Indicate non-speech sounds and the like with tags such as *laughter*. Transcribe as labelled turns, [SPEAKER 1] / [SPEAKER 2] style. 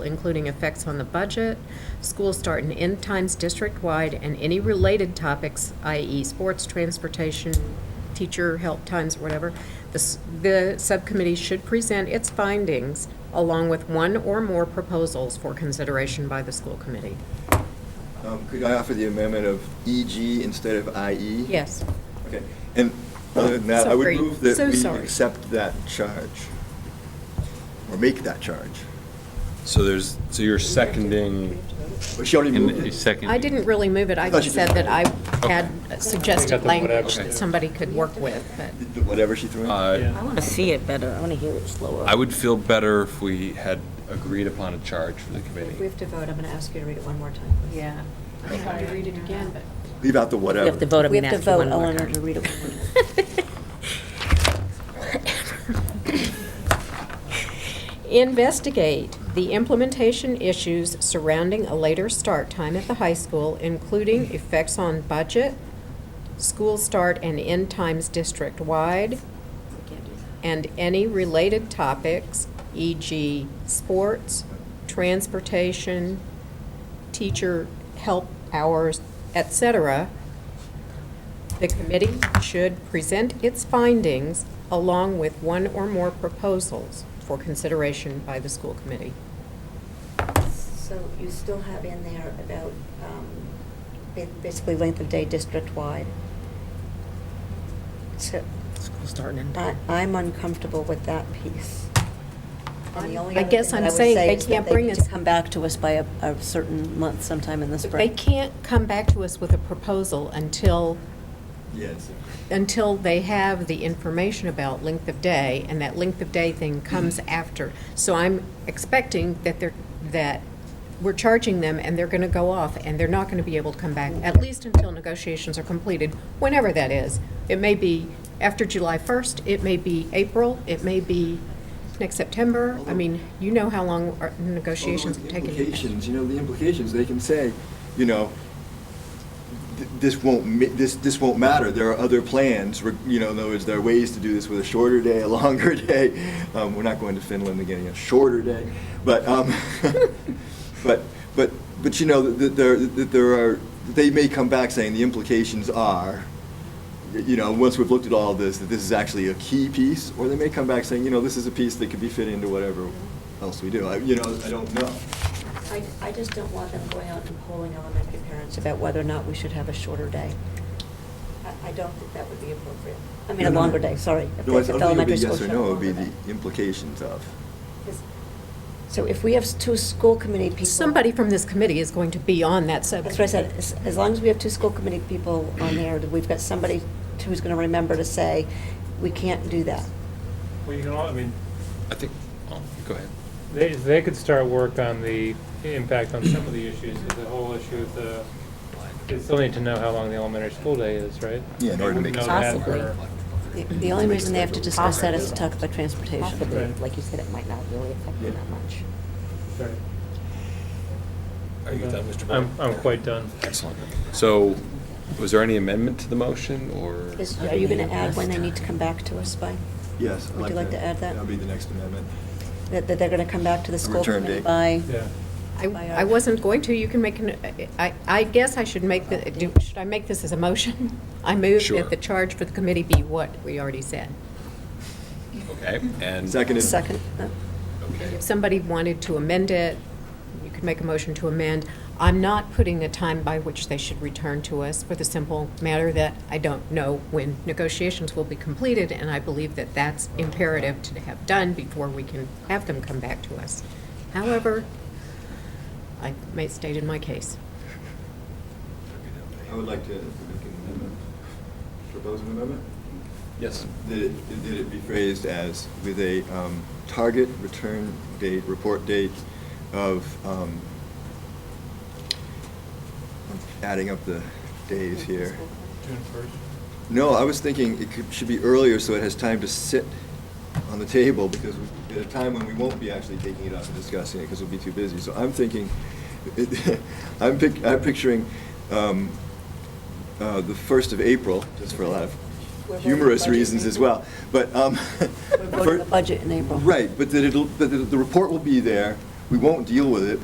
[SPEAKER 1] including effects on the budget, school start and end times district-wide, and any related topics, i.e. sports, transportation, teacher help times, whatever. The, s- the subcommittee should present its findings along with one or more proposals for consideration by the school committee.
[SPEAKER 2] Um, Could I offer the amendment of EG instead of IE?
[SPEAKER 1] Yes.
[SPEAKER 2] Okay, and other than that, I would
[SPEAKER 1] Sorry.
[SPEAKER 2] move that
[SPEAKER 1] So
[SPEAKER 2] we
[SPEAKER 1] sorry.
[SPEAKER 2] accept that charge, or make that charge.
[SPEAKER 3] So there's, so you're seconding,
[SPEAKER 2] But she already
[SPEAKER 3] in
[SPEAKER 2] moved
[SPEAKER 3] a
[SPEAKER 2] it.
[SPEAKER 3] second.
[SPEAKER 1] I didn't really move it, I
[SPEAKER 2] Thought you
[SPEAKER 1] just said
[SPEAKER 2] did.
[SPEAKER 1] that I had suggested language that somebody could work with, but.
[SPEAKER 2] Did Whatever she threw in.
[SPEAKER 3] Uh,
[SPEAKER 4] I want to see it better. I want to hear it slower.
[SPEAKER 3] I would feel better if we had agreed upon a charge for the
[SPEAKER 5] We
[SPEAKER 3] committee.
[SPEAKER 5] have to vote, I'm going to ask you to read it one more time.
[SPEAKER 1] Yeah. I tried to read it again, but.
[SPEAKER 2] Leave out the
[SPEAKER 4] We
[SPEAKER 2] whatever.
[SPEAKER 4] have to vote on
[SPEAKER 5] We
[SPEAKER 4] that.
[SPEAKER 5] have to
[SPEAKER 4] for
[SPEAKER 5] vote,
[SPEAKER 4] one
[SPEAKER 5] I
[SPEAKER 4] more
[SPEAKER 5] want her
[SPEAKER 4] time.
[SPEAKER 5] to read it. one more time.
[SPEAKER 1] Investigate the implementation issues surrounding a later start time at the high school, including effects on budget, school start and end times district-wide, and any related topics, e.g. sports, transportation, teacher help hours, etc. The committee should present its findings along with one or more proposals for consideration by the school committee.
[SPEAKER 5] *laughs* So you still have in there about um, ba- basically length of day district-wide. So
[SPEAKER 4] School starting in.
[SPEAKER 5] I- I'm uncomfortable with that piece. And the only
[SPEAKER 1] I
[SPEAKER 5] other
[SPEAKER 1] guess
[SPEAKER 5] thing
[SPEAKER 1] I'm
[SPEAKER 5] that I would
[SPEAKER 1] saying
[SPEAKER 5] say
[SPEAKER 1] they
[SPEAKER 5] is that
[SPEAKER 1] can't bring
[SPEAKER 5] need
[SPEAKER 1] us-
[SPEAKER 5] to come back to us by a- a certain month sometime in the
[SPEAKER 1] They
[SPEAKER 5] spring.
[SPEAKER 1] can't come back to us with a proposal until,
[SPEAKER 2] Yes.
[SPEAKER 1] until they have the information about length of day, and that length of day thing comes after. So I'm expecting that they're, that we're charging them, and they're going to go off, and they're not going to be able to come back, at least until negotiations are completed, whenever that is. It may be after July 1st, it may be April, it may be next September. I mean, you know how long our negotiations have
[SPEAKER 2] Although
[SPEAKER 1] taken.
[SPEAKER 2] the Implications, you know, the implications, they can say, you know, th- this won't, ma- this, this won't matter, there are other plans, re- you know, in other words, there are ways to do this with a shorter day, a *laughs* longer day. Um, we're not going to Finland and getting a shorter day, but, um, *laughs* but, but, but you know, that there, that there are, they may come back saying the implications are, you know, once we've looked at all this, that this is actually a key piece, or they may come back saying, you know, this is a piece that could be fit into whatever else we do. I, you know, I don't know.
[SPEAKER 5] I, I just don't want them going out and polling elementary parents about whether or not we should have a shorter day. I, I don't think that would be appropriate. I mean, a
[SPEAKER 2] No, no.
[SPEAKER 5] longer day, sorry. If
[SPEAKER 2] No, I don't
[SPEAKER 5] if
[SPEAKER 2] think it would be
[SPEAKER 5] elementary
[SPEAKER 2] yes
[SPEAKER 5] schools
[SPEAKER 2] or
[SPEAKER 5] should have
[SPEAKER 2] no, it would be
[SPEAKER 5] longer
[SPEAKER 2] the
[SPEAKER 5] day.
[SPEAKER 2] implications of.
[SPEAKER 5] Is- So if we have s- two school committee people.
[SPEAKER 1] Somebody from this committee is going to be on that subcommittee.
[SPEAKER 5] That's what I said, as, as long as we have two school committee people on there, that we've got somebody who's gonna remember to say, we can't do that.
[SPEAKER 6] Well, you can, all- I mean,
[SPEAKER 3] I think, oh, go ahead.
[SPEAKER 6] they, they could start work on the impact on some of the issues, the whole issue of the, they still need to know how long the elementary school day is, right?
[SPEAKER 2] Yeah, in
[SPEAKER 6] They
[SPEAKER 2] order to
[SPEAKER 6] wouldn't
[SPEAKER 2] make it
[SPEAKER 6] know that
[SPEAKER 5] Possibly.
[SPEAKER 6] for-
[SPEAKER 5] The- The only reason they have to discuss that is to talk about transportation.
[SPEAKER 6] Possibly. Right.
[SPEAKER 5] Like you said, it might not really affect them
[SPEAKER 2] Yeah.
[SPEAKER 5] that much.
[SPEAKER 6] Sorry.
[SPEAKER 3] Are you done, Mr.
[SPEAKER 6] I'm, I'm quite done.
[SPEAKER 3] Excellent. So, was there any amendment to the motion, or?
[SPEAKER 5] Is, are you gonna add when they need to come back to us by?
[SPEAKER 2] Yes. I'd
[SPEAKER 5] Would you like to add that?
[SPEAKER 2] That'll be the next amendment.
[SPEAKER 5] That, that they're gonna come back to the school
[SPEAKER 2] Return
[SPEAKER 5] committee
[SPEAKER 2] date.
[SPEAKER 5] by?
[SPEAKER 6] Yeah.
[SPEAKER 1] I, I wasn't going to, you can make, an. I, I guess I should make, the. do- should I make this as a motion? *laughs* I move
[SPEAKER 3] Sure.
[SPEAKER 1] that the charge for the committee be what we already said.
[SPEAKER 3] Okay, and.
[SPEAKER 2] Seconded.
[SPEAKER 5] Second, uh,
[SPEAKER 3] Okay.
[SPEAKER 1] If somebody wanted to amend it, you could make a motion to amend. I'm not putting a time by which they should return to us for the simple matter that I don't know when negotiations will be completed, and I believe that that's imperative to have done before we can have them come back to us. However, I may state in my case.
[SPEAKER 2] I would like to make an amendment. Propose an amendment?
[SPEAKER 3] Yes.
[SPEAKER 2] That it, that it be phrased as with a um, target return date, report date of, um, adding up the days here.
[SPEAKER 6] June first.
[SPEAKER 2] No, I was thinking it could, should be earlier so it has time to sit on the table because we- at a time when we won't be actually taking it up and discussing it because we'll be too busy. So I'm thinking, *laughs* I'm pic, I'm picturing, um, uh, the first of April, just for a lot
[SPEAKER 5] We're
[SPEAKER 2] of
[SPEAKER 5] voting
[SPEAKER 2] humorous
[SPEAKER 5] budget in
[SPEAKER 2] reasons as
[SPEAKER 5] April.
[SPEAKER 2] well. But, um. *laughs*
[SPEAKER 5] we're voting the budget in April.
[SPEAKER 2] Right, but that it'll, but the, the report will be there, we won't deal with it